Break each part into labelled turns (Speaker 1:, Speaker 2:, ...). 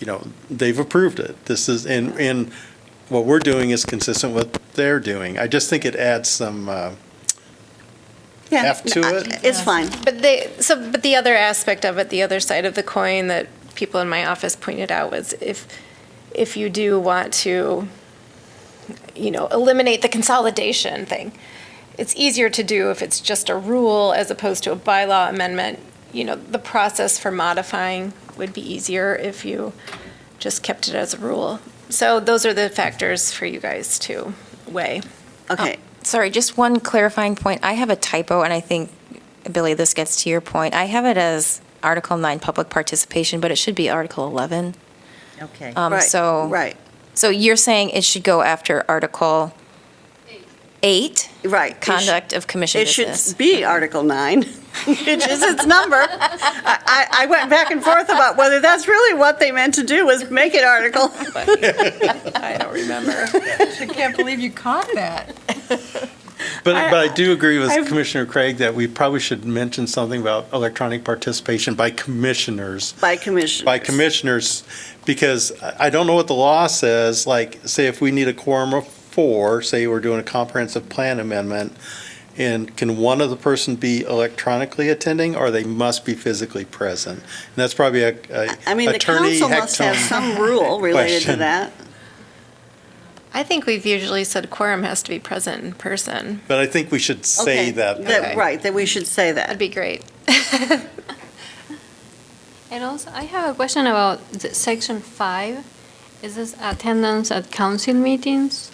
Speaker 1: you know, they've approved it. This is, and, and what we're doing is consistent with what they're doing. I just think it adds some, uh,
Speaker 2: Yeah,
Speaker 1: F to it?
Speaker 2: It's fine.
Speaker 3: But they, so, but the other aspect of it, the other side of the coin that people in my office pointed out was if, if you do want to, you know, eliminate the consolidation thing, it's easier to do if it's just a rule as opposed to a bylaw amendment. You know, the process for modifying would be easier if you just kept it as a rule. So those are the factors for you guys to weigh.
Speaker 2: Okay.
Speaker 4: Sorry, just one clarifying point. I have a typo, and I think, Billy, this gets to your point. I have it as Article 9, public participation, but it should be Article 11.
Speaker 5: Okay.
Speaker 4: Um,
Speaker 2: Right,
Speaker 4: So.
Speaker 2: Right,
Speaker 4: So you're saying it should go after Article 8?
Speaker 2: right. It sh-
Speaker 4: Conduct of commission
Speaker 2: It should
Speaker 4: business.
Speaker 2: be Article 9, which is its number. I, I I went back and forth about whether that's really what they meant to do, was make it Article.
Speaker 3: I don't remember.
Speaker 5: I can't believe you caught that.
Speaker 1: But, but I do agree with
Speaker 2: I've-
Speaker 1: Commissioner Craig that we probably should mention something about electronic participation by commissioners.
Speaker 2: By commission.
Speaker 1: by commissioners, because I I don't know what the law says, like, say if we need a quorum of four, say we're doing a comprehensive plan amendment, and can one of the person be electronically attending, or they must be physically present? And that's probably a a
Speaker 2: I mean, the
Speaker 1: attorney
Speaker 2: council must have
Speaker 1: hecton.
Speaker 2: some rule related to
Speaker 1: question.
Speaker 2: that.
Speaker 3: I think we've usually said quorum has to be present in person.
Speaker 1: But I think we should say
Speaker 2: Okay,
Speaker 1: that.
Speaker 3: Okay.
Speaker 2: Right, that we should say
Speaker 3: That'd
Speaker 2: that.
Speaker 3: be great.
Speaker 6: And also, I have a question about the section five. Is this attendance at council meetings?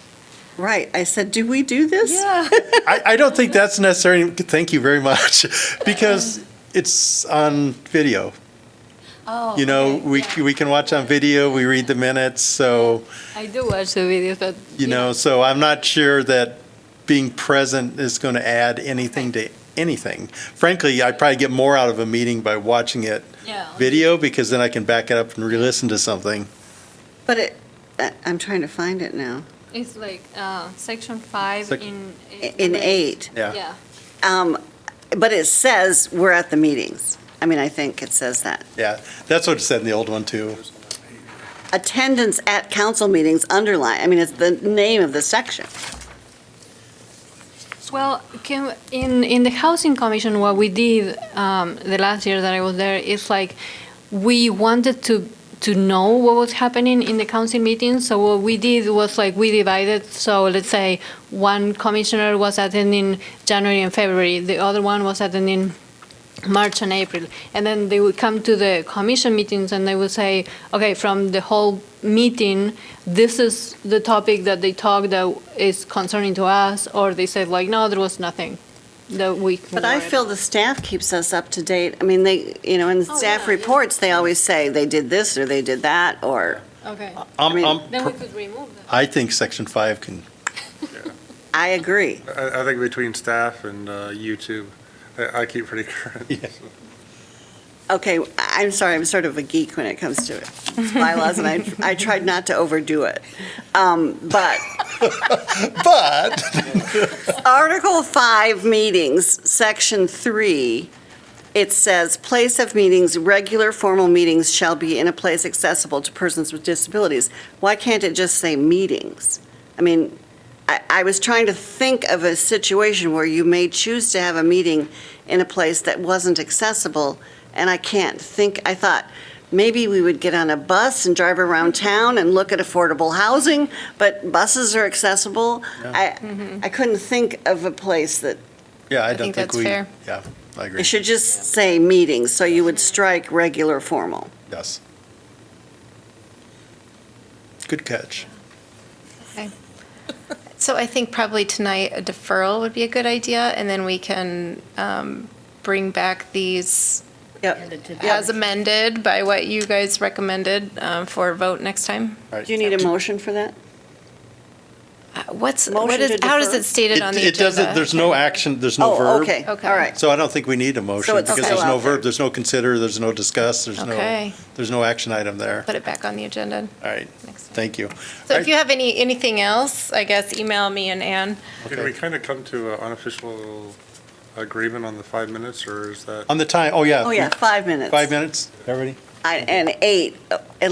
Speaker 2: Right, I said, do we do this?
Speaker 1: I, I don't think that's necessary, thank you very much, because it's on video.
Speaker 6: Oh.
Speaker 1: You know, we, c- we can watch on video, we read the minutes, so.
Speaker 6: I do watch the videos, but.
Speaker 1: You know, so I'm not sure that being present is going to add anything to anything. Frankly, I probably get more out of a meeting by watching it
Speaker 6: Yeah.
Speaker 1: video because then I can back it up and re-listen to something.
Speaker 2: But it, I- I'm trying to find it now,
Speaker 6: It's like, uh, section five
Speaker 1: Sec-
Speaker 6: in.
Speaker 2: in 8.
Speaker 1: Yeah.
Speaker 6: Yeah.
Speaker 2: Um, But it says, we're at the meetings. I mean, I think it says that.
Speaker 1: Yeah. That's what it said in the old one too.
Speaker 2: attendance at council meetings underline, I mean, it's the name of the section.
Speaker 6: Well, can, in, in the housing commission, what we did, um, the last year that I was there, is like, we wanted to, to know what was happening in the council meetings, so what we did was like, we divided, so let's say, one commissioner was attending January and February, the other one was attending March and April. And then they would come to the commission meetings and they would say, okay, from the whole meeting, this is the topic that they talked that is concerning to us, or they said like, no, there was nothing that we.
Speaker 2: But I feel the staff keeps us up to date. I mean, they, you know, in
Speaker 6: Oh,
Speaker 2: staff
Speaker 6: yeah, yeah.
Speaker 2: reports, they always say they did this or they did that, or,
Speaker 6: Okay,
Speaker 1: I'm,
Speaker 2: mean-
Speaker 1: I'm,
Speaker 6: then we
Speaker 1: per-
Speaker 6: could remove that.
Speaker 1: I think section five can,
Speaker 2: I agree.
Speaker 7: I, I think between staff and uh, YouTube, I, I keep pretty current. so.
Speaker 2: Okay, I- I'm sorry, I'm sort of a geek when it comes to bylaws, and I, I tried not to overdo it. Um, But
Speaker 1: but
Speaker 2: Article 5 meetings, Section 3, it says, "Place of meetings, regular formal meetings shall be in a place accessible to persons with disabilities." Why can't it just say meetings? I mean, I, I was trying to think of a situation where you may choose to have a meeting in a place that wasn't accessible, and I can't think, I thought, maybe we would get on a bus and drive around town and look at affordable housing, but buses are accessible. I, I couldn't think of a place that,
Speaker 1: yeah, I
Speaker 3: think
Speaker 1: don't think
Speaker 3: that's
Speaker 1: we,
Speaker 3: fair.
Speaker 1: yeah, I agree.
Speaker 2: it should just say meetings, so you would strike regular formal.
Speaker 1: Yes. Good catch.
Speaker 3: So I think probably tonight a deferral would be a good idea, and then we can um, bring back these
Speaker 2: Yep.
Speaker 3: as amended by what you guys recommended uh, for a vote next time.
Speaker 1: All right.
Speaker 2: Do you need a motion for that?
Speaker 3: Uh, What's, what
Speaker 2: Motion
Speaker 3: is,
Speaker 2: to
Speaker 3: how is
Speaker 2: defer?
Speaker 3: it stated on the
Speaker 1: It doesn't,
Speaker 3: agenda?
Speaker 1: there's no action, there's no verb.
Speaker 2: Oh, okay, all
Speaker 3: Okay.
Speaker 2: right.
Speaker 1: So I don't think we need a motion
Speaker 2: it's
Speaker 1: because there's
Speaker 2: still
Speaker 1: no
Speaker 2: out there.
Speaker 1: verb, there's no consider, there's no discuss, there's no,
Speaker 3: Okay.
Speaker 1: there's no action item there.
Speaker 3: Put it back on the agenda.
Speaker 1: All right,
Speaker 3: Next time.
Speaker 1: thank you.
Speaker 3: So if you have any, anything else, I guess email me and Ann.
Speaker 7: Did we kind of come to an unofficial agreement on the five minutes, or is that?
Speaker 1: On the time, oh yeah.
Speaker 2: Oh, yeah, five minutes.
Speaker 1: Five minutes, everybody?
Speaker 2: I- And eight, at